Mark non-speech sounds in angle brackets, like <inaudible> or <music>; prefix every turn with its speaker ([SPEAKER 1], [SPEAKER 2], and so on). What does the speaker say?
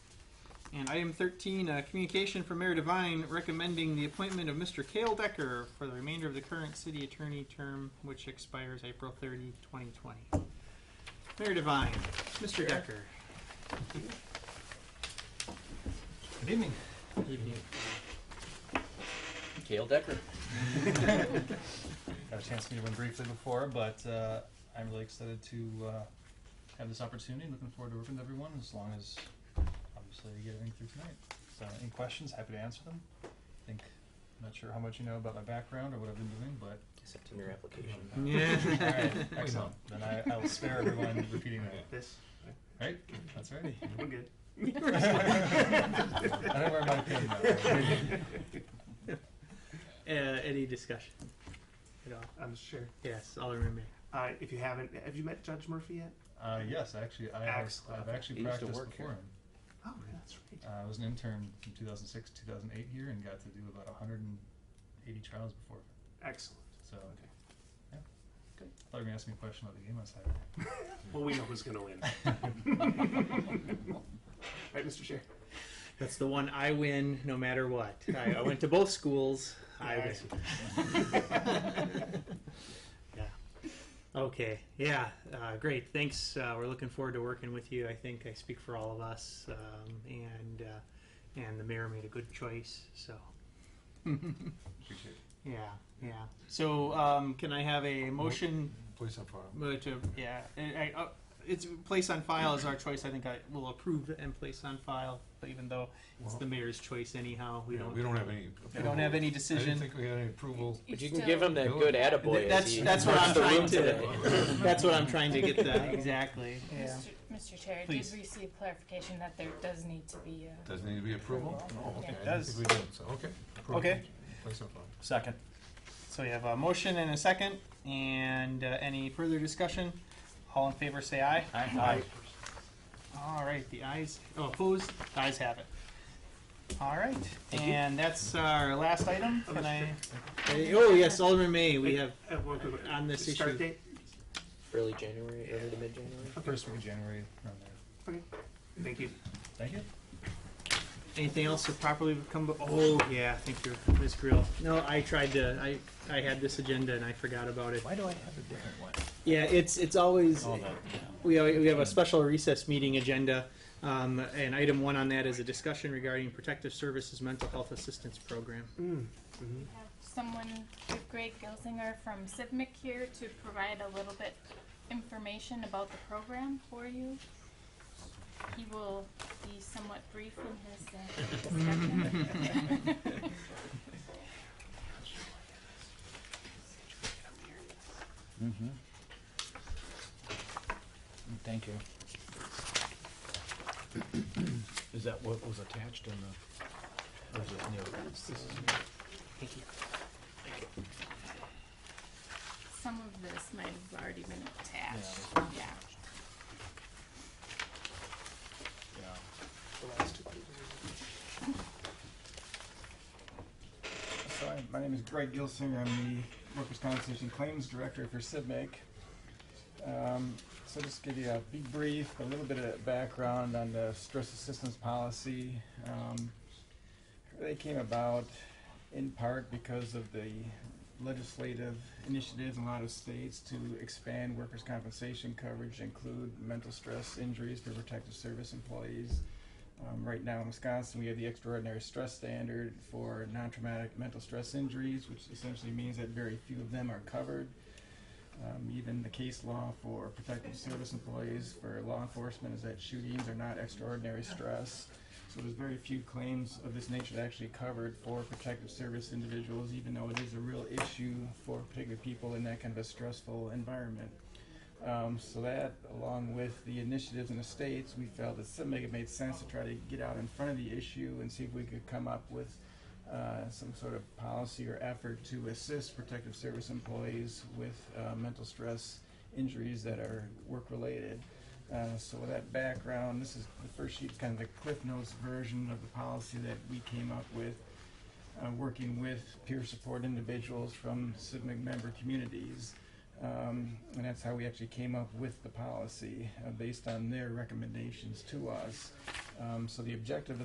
[SPEAKER 1] And item 13, uh, communication from Mayor Devine recommending the appointment of Mr. Cale Decker for the remainder of the current city attorney term, which expires April 30, 2020. Mayor Devine, Mr. Decker.
[SPEAKER 2] Good evening.
[SPEAKER 1] Evening.
[SPEAKER 3] Kale Decker.
[SPEAKER 2] Got a chance to meet him briefly before, but uh, I'm really excited to uh, have this opportunity. Looking forward to working with everyone as long as obviously we get everything through tonight. So, any questions? Happy to answer them. I think I'm not sure how much you know about my background or what I've been doing, but
[SPEAKER 3] Except in your application.
[SPEAKER 2] <laughs> all
[SPEAKER 1] Yeah. <laughs>
[SPEAKER 2] right, excellent. Then I, I will spare everyone repeating <laughs> that.
[SPEAKER 4] This,
[SPEAKER 2] Right? That's <laughs> right.
[SPEAKER 4] we're good.
[SPEAKER 2] I don't wear my pin though.
[SPEAKER 1] Uh, Any discussion at all?
[SPEAKER 4] <laughs> I'm sure.
[SPEAKER 1] Yes, Alderman May.
[SPEAKER 4] Uh, if you haven't, have you met Judge Murphy yet?
[SPEAKER 2] Uh, yes, actually, I have,
[SPEAKER 4] Excellent.
[SPEAKER 2] I've actually
[SPEAKER 3] He used to
[SPEAKER 2] practiced
[SPEAKER 3] work here.
[SPEAKER 2] before him.
[SPEAKER 4] Oh, yeah, that's right.
[SPEAKER 2] Uh, I was an intern from 2006 to 2008 here and got to do about 180 trials before.
[SPEAKER 4] Excellent.
[SPEAKER 2] So I
[SPEAKER 4] Okay.
[SPEAKER 2] thought you were gonna ask me a question about the game on Saturday.
[SPEAKER 4] Well, we know who's going to
[SPEAKER 1] <laughs>
[SPEAKER 4] win. right, Mr. Chair.
[SPEAKER 1] That's the one I win no matter what. I, I went to both schools. I
[SPEAKER 4] Yeah, I
[SPEAKER 1] win.
[SPEAKER 4] see.
[SPEAKER 1] <laughs> yeah. Okay. Yeah. Uh, great. Thanks. Uh, we're looking forward to working with you. I think I speak for all of us. Um, and uh, and the mayor made a good choice. So.
[SPEAKER 2] Appreciate it.
[SPEAKER 1] Yeah. Yeah. So um, can I have a motion
[SPEAKER 5] Place on file.
[SPEAKER 1] uh, to yeah? I, I, uh, it's place on file is our choice. I think I will approve it and place on file, even though it's the mayor's choice anyhow. We
[SPEAKER 5] Yeah,
[SPEAKER 1] don't.
[SPEAKER 5] We don't have any.
[SPEAKER 1] We don't have any
[SPEAKER 5] I didn't
[SPEAKER 1] decision.
[SPEAKER 5] think we had any approval.
[SPEAKER 3] But you can give him that good attaboy.
[SPEAKER 1] Th- that's-
[SPEAKER 3] as he
[SPEAKER 1] that's what
[SPEAKER 3] marched
[SPEAKER 1] I'm
[SPEAKER 3] the
[SPEAKER 1] trying
[SPEAKER 3] room
[SPEAKER 1] to- <laughs>
[SPEAKER 3] today.
[SPEAKER 1] That's
[SPEAKER 5] <laughs>
[SPEAKER 1] what I'm trying to get that exactly. Yeah.
[SPEAKER 6] Mr. Mr. Chair, I did
[SPEAKER 1] Please.
[SPEAKER 6] receive clarification that there does need to be a.
[SPEAKER 5] Doesn't need to be approval? No, okay.
[SPEAKER 1] It
[SPEAKER 5] I didn't
[SPEAKER 1] does.
[SPEAKER 5] think We did, so, okay. Approve.
[SPEAKER 1] Okay.
[SPEAKER 5] Place on file.
[SPEAKER 2] Second.
[SPEAKER 1] So we have a motion and a second, and uh, any further discussion? All in favor, say aye.
[SPEAKER 2] Aye.
[SPEAKER 1] All right, the ayes, oh, opposed, the ayes have it. All right, and that's our last item. Can I? Hey, Oh, yes, Alderman May, we have,
[SPEAKER 4] I have one quick one.
[SPEAKER 1] On this
[SPEAKER 4] Uh, Start
[SPEAKER 1] issue.
[SPEAKER 4] date?
[SPEAKER 3] Early January, early to mid January.
[SPEAKER 2] First week of January around there.
[SPEAKER 4] Okay. Thank you.
[SPEAKER 2] Thank you.
[SPEAKER 1] anything else that properly would come, bef- oh, yeah, thank you, Ms. Grill. No, I tried to, I, I had this agenda and I forgot about it.
[SPEAKER 3] Why do I have a different one?
[SPEAKER 1] Yeah, it's, it's always,
[SPEAKER 3] Oh, no.
[SPEAKER 1] We have, we have a special recess meeting agenda, um, and item one on that is a discussion regarding Protective Services Mental Health Assistance Program.
[SPEAKER 6] We have Someone, we have Greg Gilzinger from CIVMIC here to provide a little bit information about the program for you. He will be somewhat brief in his uh, discussion. <laughs>
[SPEAKER 3] Mm-hmm. Thank
[SPEAKER 5] <clears throat>
[SPEAKER 3] you.
[SPEAKER 7] Is that what was attached in the, or is it new?
[SPEAKER 6] Some of this might have already been attached, yeah.
[SPEAKER 7] Yeah.
[SPEAKER 8] Hi, my name is Greg Gilsinger. I'm the Workers' Compensation Claims Director for CIVMAC. Um, so just give you a be brief, a little bit of background on the stress assistance policy. Um, they came about in part because of the legislative initiatives in a lot of states to expand workers' compensation coverage, to include mental stress injuries for protective service employees, um, right now in Wisconsin, we have the extraordinary stress standard for non traumatic mental stress injuries, which essentially means that very few of them are covered. Um, even the case law for protective service employees for law enforcement is that shootings are not extraordinary stress. So there's very few claims of this nature that are actually covered for protective service individuals, even though it is a real issue for particular people in that kind of a stressful environment. Um, so that, along with the initiatives in the states, we felt that something it made sense to try to get out in front of the issue and see if we could come up with uh, some sort of policy or effort to assist protective service employees with uh, mental stress injuries that are work-related. Uh, so with that background, this is the first sheet's kind of the Cliff Notes version of the policy that we came up with uh, working with peer support individuals from CIVMIC member communities. Um, and that's how we actually came up with the policy, uh, based on their recommendations to us. Um, so the objective of